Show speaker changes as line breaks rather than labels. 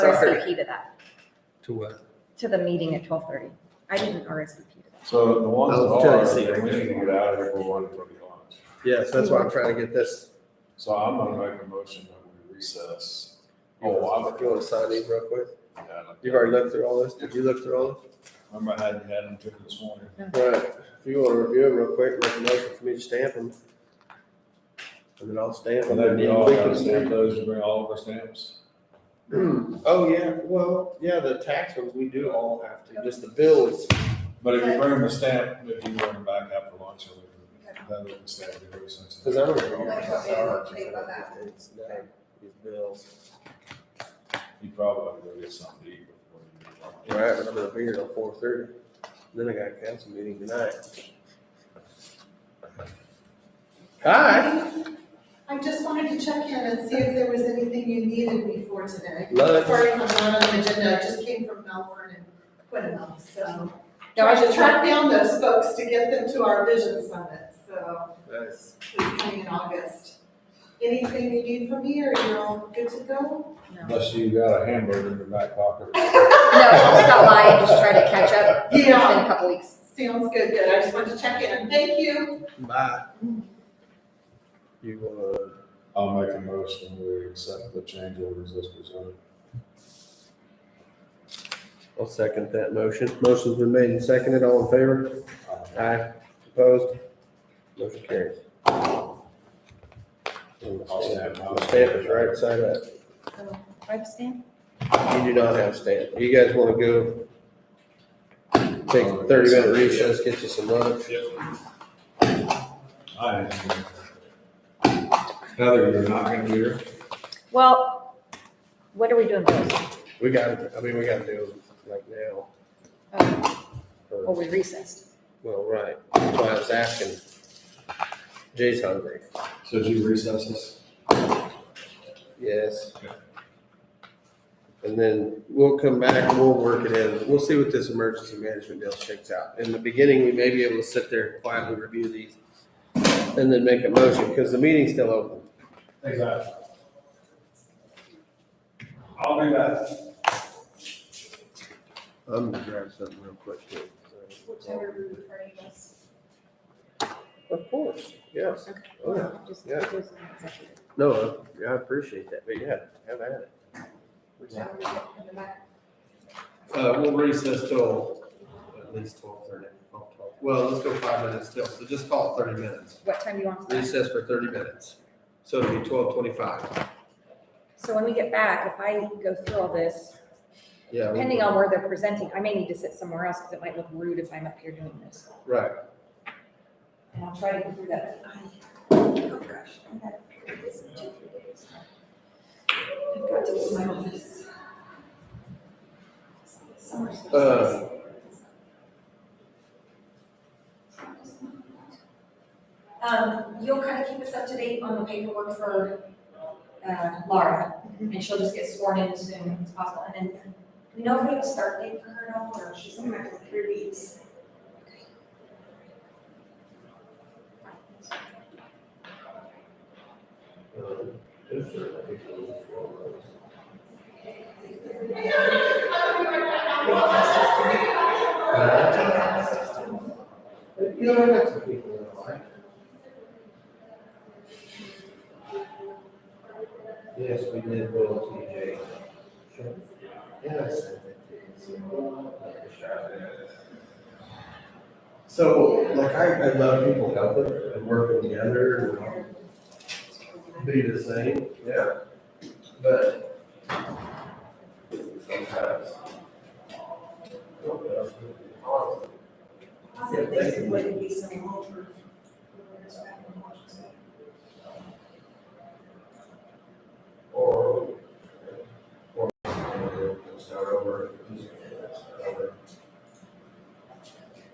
RSVP to that,
To uh, what?
to the meeting at twelve thirty. I didn't RSVP to that.
So the ones that
I'll tell you
are,
see.
then we need to get out of here for one, to be honest.
Yes, that's why I'm trying to get this,
So I'm gonna make a motion that we recess.
you
Oh, I'm.
want to sign these real quick?
Yeah, like-
You've already looked through all this, did you look through all this?
Remember I had, had them to this morning.
Right, if you wanna review it real quick, make a motion for me to stamp them. And then I'll stamp them.
And then
and
we
then
all
we
gotta
can-
stamp those, you bring all of our stamps.
Oh, yeah, well, yeah, the tax ones, we do all have to, just the bills.
But if you bring them a stamp, if you bring them back after lunch, or whatever, then we can stamp it. or something.
Cause I don't know.
Okay,
It's not these bills.
You probably go get something to eat before you.
Right, but I'm gonna be here till four thirty, then I got a council meeting tonight. Hi,
I just wanted to check in and see if there was anything you needed me for today.
Lunch.
Sorry if I'm not on the agenda, I just came from Melbourne and Quinnell, so.
No, I
Tried to
just
track down those folks to get them to our vision summit, so
nice,
it's coming in August. Anything you need from me, or you're all good to go?
No,
Unless you got a hamburger in your back pocket.
I'll stop by and just try to catch up. It's been
Yeah.
a couple weeks.
Sounds good, good, I just wanted to check in, thank you.
bye. You uh, wanna
I'll make a motion, we accept the change orders as presented.
I'll second that motion. Motion's been made and seconded. All in favor? Aye. Opposed? Motion carries.
I'll stamp mine.
The Stamp is right side up.
Do I have a stamp?
You do not have a stamp. You guys wanna go take a thirty minute recess, get you some lunch?
I am. Heather, you're not gonna be here?
Well, what are we doing first?
We gotta, I mean, we gotta do it like now.
Oh, Well,
or-
we recessed.
Well, right. That's why I was asking. Jay's hungry.
So did you recess this?
Yes.
Okay.
And then we'll come back and we'll work it in. We'll see what this emergency management deal shakes out. In the beginning, we may be able to sit there and quietly review these and then make a motion because the meeting's still open.
Exactly. I'll do that.
I'm gonna grab something real quick too. Of course, yes.
Okay.
Oh, yeah.
Just-
Yeah.
it was an executive.
No, uh, yeah, I appreciate that, but yeah, have at it.
Whichever you want in the back.
Uh, we'll recess till at least twelve thirty. Well, let's go five minutes till, so just call it thirty minutes.
What time do you want? to start?
Recess for thirty minutes. So it'll be twelve twenty-five.
So when we get back, if I go through all this,
Yeah. we'll-
depending on where they're presenting, I may need to sit somewhere else because it might look rude if I'm up here doing this.
Right.
And I'll try to go through that. Oh, I've got to do my office.
Uh,
Um, you'll kind of keep us up to date on the paperwork for, uh, Laura, and she'll just get sworn in as soon as possible, and then, we know if we have a start date for her at all, or she's in for three weeks.
Yes, we did go to TJ. Yes. So, like, I, I love people helping and working together and be the same, yeah, but sometimes.
Positive, they would be some hope for-